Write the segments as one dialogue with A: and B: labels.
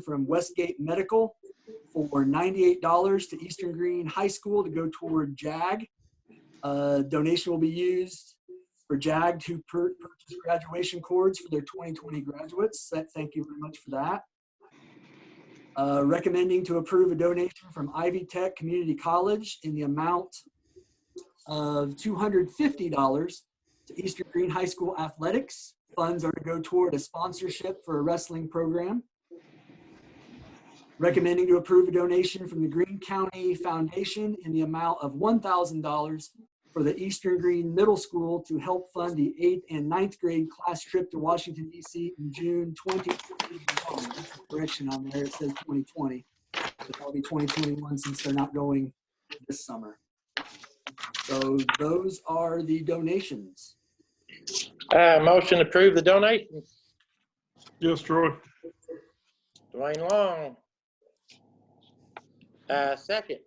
A: from Westgate Medical for $98 to Eastern Green High School to go toward JAG. Uh, Donation will be used for JAG to pur- purchase graduation cords for their 2020 graduates. That- Thank you very much for that. Uh, Recommending to approve a donation from Ivy Tech Community College in the amount of $250 to Eastern Green High School Athletics. Funds are to go toward a sponsorship for a wrestling program. Recommending to approve a donation from the Green County Foundation in the amount of $1,000 for the Eastern Green Middle School to help fund the eighth and ninth grade class trip to Washington DC in June 2021. Correction on there, it says 2020. but That'll be 2021 since they're not going this summer. So those are the donations.
B: Uh, motion to approve the donations.
C: Yes, Troy.
B: Dwayne Long. Uh, second,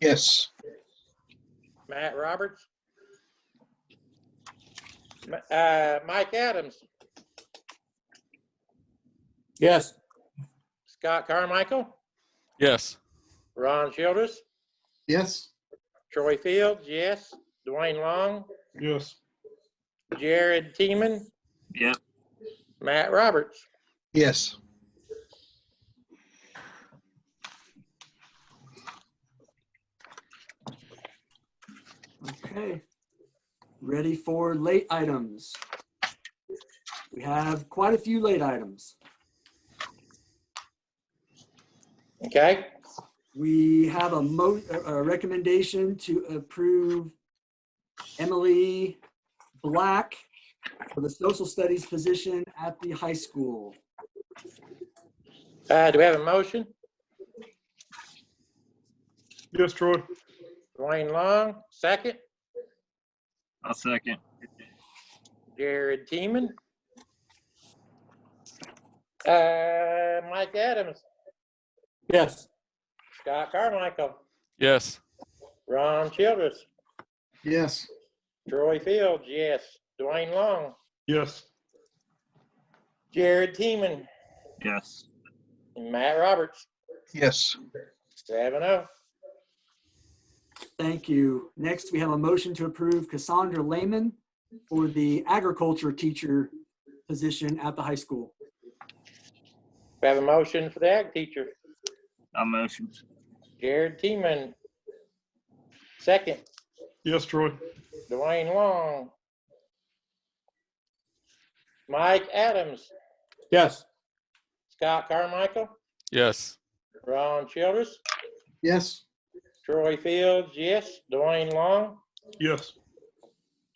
D: Yes.
B: Matt Roberts. Ma- Uh, Mike Adams.
E: Yes.
B: Scott Carmichael.
F: Yes.
B: Ron Childress.
D: Yes.
B: Troy Fields, yes. Dwayne Long.
C: Yes.
B: Jared Teeman.
G: Yep.
B: Matt Roberts.
D: Yes.
A: Okay. Ready for late items. We have quite a few late items.
B: Okay,
A: We have a mo, a a recommendation to approve Emily Black for the social studies position at the high school.
B: uh, do we have a motion?
C: Yes, Troy.
B: Dwayne Long, second.
G: I'll second.
B: Jared Teeman. Uh, Mike Adams,
E: Yes.
B: Scott Carmichael,
F: Yes.
B: Ron Childress,
D: Yes.
B: Troy Fields, yes. Dwayne Long,
C: Yes.
B: Jared Teeman,
G: Yes.
B: and Matt Roberts,
D: Yes.
B: seven oh.
A: Thank you. Next, we have a motion to approve Cassandra Lehman for the agriculture teacher position at the high school.
B: We have a motion for the ag teacher,
G: I'll motion.
B: Jared Teeman. Second,
C: Yes, Troy.
B: Dwayne Long. Mike Adams,
E: Yes.
B: Scott Carmichael,
F: Yes.
B: Ron Childress,
D: Yes.
B: Troy Fields, yes. Dwayne Long,
C: Yes.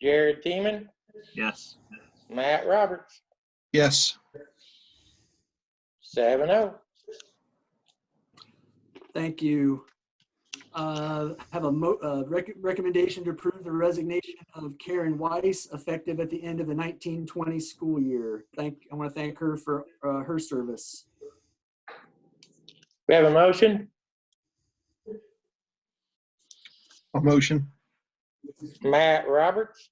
B: Jared Teeman,
G: Yes.
B: Matt Roberts,
D: Yes.
B: seven oh.
A: Thank you. Uh, Have a mo, uh, rec- recommendation to approve the resignation of Karen Weiss effective at the end of the 1920 school year. Thank, I want to thank her for uh, her service.
B: We have a motion,
D: A motion.
B: Matt Roberts.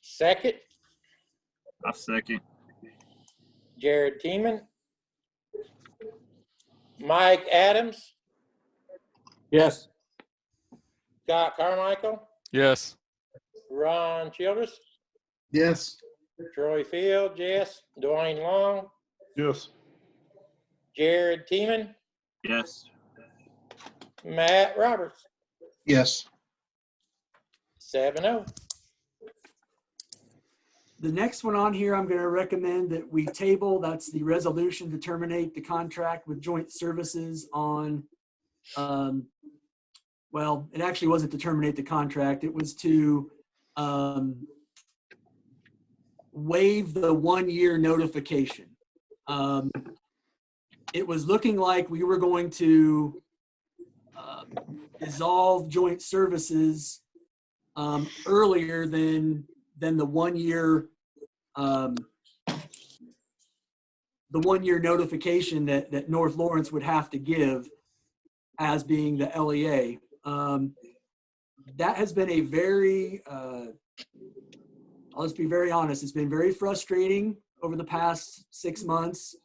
B: Second,
G: I'll second.
B: Jared Teeman. Mike Adams,
E: Yes.
B: Scott Carmichael,
F: Yes.
B: Ron Childress,
D: Yes.
B: Troy Fields, yes. Dwayne Long,
C: Yes.
B: Jared Teeman,
G: Yes.
B: Matt Roberts,
D: Yes.
B: seven oh.
A: The next one on here, I'm going to recommend that we table, that's the resolution to terminate the contract with joint services on, um, well, it actually wasn't to terminate the contract, it was to um, waive the one-year notification. Um, It was looking like we were going to uh, dissolve joint services um, earlier than, than the one-year um, the one-year notification that, that North Lawrence would have to give as being the LEA. Um, that has been a very, uh, I'll just be very honest, it's been very frustrating over the past six months